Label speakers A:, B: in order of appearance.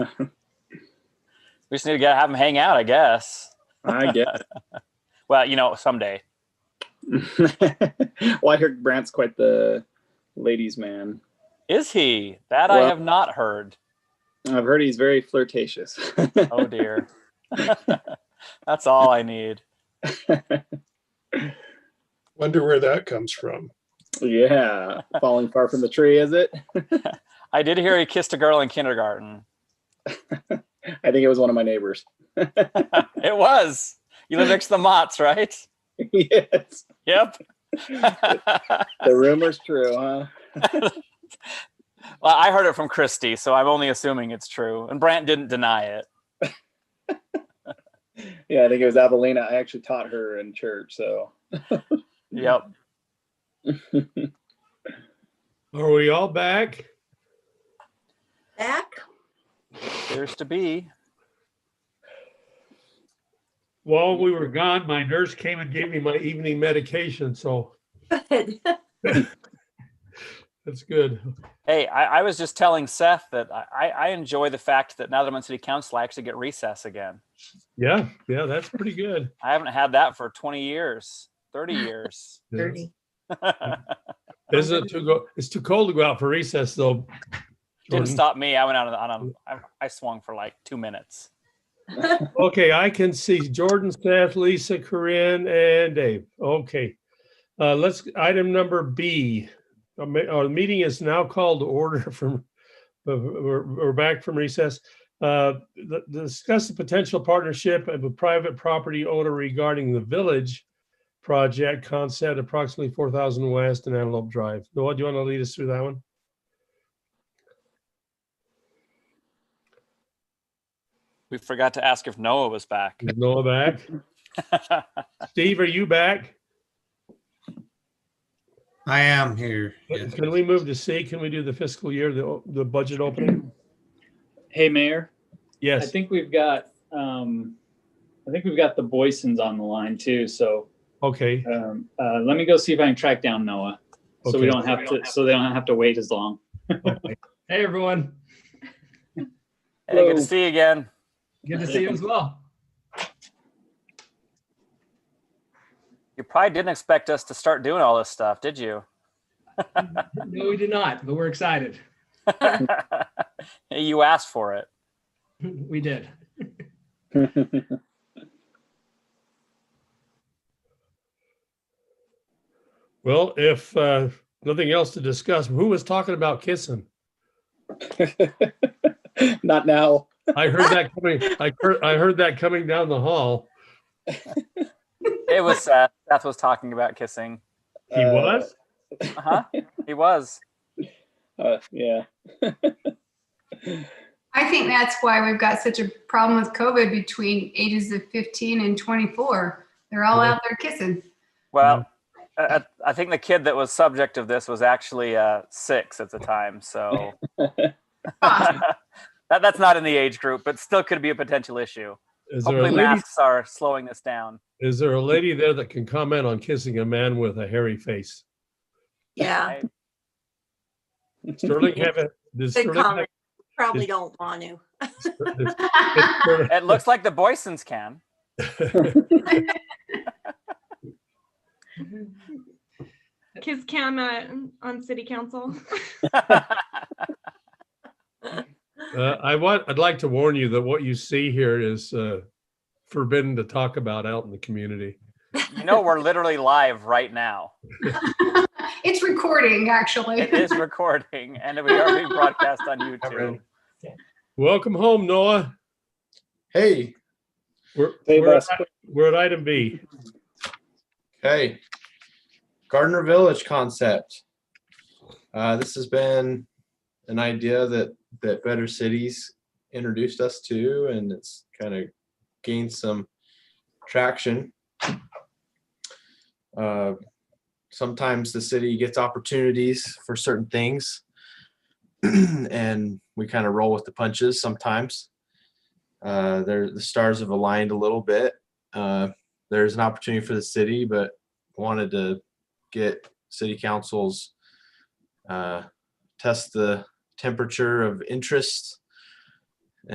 A: We just need to get have them hang out, I guess.
B: I guess.
A: Well, you know, someday.
B: well, I heard Brant's quite the ladies' man.
A: Is he? That I
B: Well-
A: have not heard.
B: I've heard he's very flirtatious.
A: Oh dear. That's all I need.
C: Wonder where that comes from.
B: yeah, falling far from the tree, is it?
A: I did hear he kissed a girl in kindergarten.
B: I think it was one of my neighbors.
A: It was. You live next to the Mott's, right?
B: yes,
A: Yep.
B: the rumor's true, huh?
A: Well, I heard it from Christy, so I'm only assuming it's true. And Brant didn't deny it.
B: Yeah, I think it was Avelina. I actually taught her in church, so
A: Yep.
D: Are we all back?
E: Back?
A: Appears to be.
D: While we were gone, my nurse came and gave me my evening medication, so
E: Good.
D: that's good.
A: Hey, I, I was just telling Seth that I, I I enjoy the fact that now that I'm on city council, I actually get recess again.
D: Yeah, yeah, that's pretty good.
A: I haven't had that for 20 years, 30 years.
E: Dirty.
D: Isn't it too go, it's too cold to go out for recess though.
A: Didn't
D: Jordan.
A: stop me. I went out on, a- on a, I, I swung for like two minutes.
D: Okay, I can see Jordan, Seth, Lisa, Corinne, and Dave. Okay. Uh, let's, item number B. Our ma- our meeting is now called to order from, uh, we're, we're back from recess. Uh, the- Discuss the potential partnership of a private property owner regarding the village project concept approximately 4,000 West and Antelope Drive. Noah, do you want to lead us through that one?
A: We forgot to ask if Noah was back.
D: Is Noah back? Steve, are you back?
F: I am here. yeah.
D: Can we move to C? Can we do the fiscal year, the, o- the budget opening?
G: Hey, Mayor, I
D: Yes,
G: think we've got, um, I think we've got the Boysons on the line too, so,
D: okay,
G: um, uh, let me go see if I can track down Noah. So
D: Okay.
G: we don't have to, so they don't have to wait as long.
H: Hey, everyone.
A: hey, good
G: Hello.
A: to see you again.
H: Good to see you as well.
A: You probably didn't expect us to start doing all this stuff, did you?
H: No, we did not, but we're excited.
A: you asked for it.
H: We did.
D: well, if uh nothing else to discuss, who was talking about kissing?
B: not now.
D: I heard that coming, I heard, I heard that coming down the hall.
A: It was Seth. Seth was talking about kissing.
D: He
B: Uh,
D: was?
A: Uh huh. He was.
B: Uh, yeah,
I: I think that's why we've got such a problem with COVID between ages of 15 and 24. They're all
D: Yeah.
I: out there kissing.
A: Well, I, I- I think the kid that was subject of this was actually uh, six at the time. So
I: Ah,
A: that, that's not in the age group, but still could be a potential issue.
D: Is there a
A: Hopefully,
D: lady,
A: masks are slowing this down.
D: is there a lady there that can comment on kissing a man with a hairy face?
E: Yeah,
D: Sterling have a, does
E: good
D: Sterling have-
E: comment. Probably don't want to.
D: does- does Sterling-
A: It looks like the Boysons can.
J: Kiss cam at, on city council.
D: Uh, I want, I'd like to warn you that what you see here is uh forbidden to talk about out in the community.
A: you know, we're literally live right now.
I: it's recording, actually.
A: It is recording and we are being broadcast on YouTube.
D: Welcome home, Noah.
F: Hey,
D: We're,
B: Save
D: we're,
B: us.
D: at- we're at item B.
F: hey, Gardner Village concept. Uh, this has been an idea that that Better Cities introduced us to, and it's kind of gained some traction. Uh, sometimes the city gets opportunities for certain things, and we kind of roll with the punches sometimes. Uh, there, the stars have aligned a little bit. Uh, there's an opportunity for the city, but wanted to get city councils uh, test the temperature of interest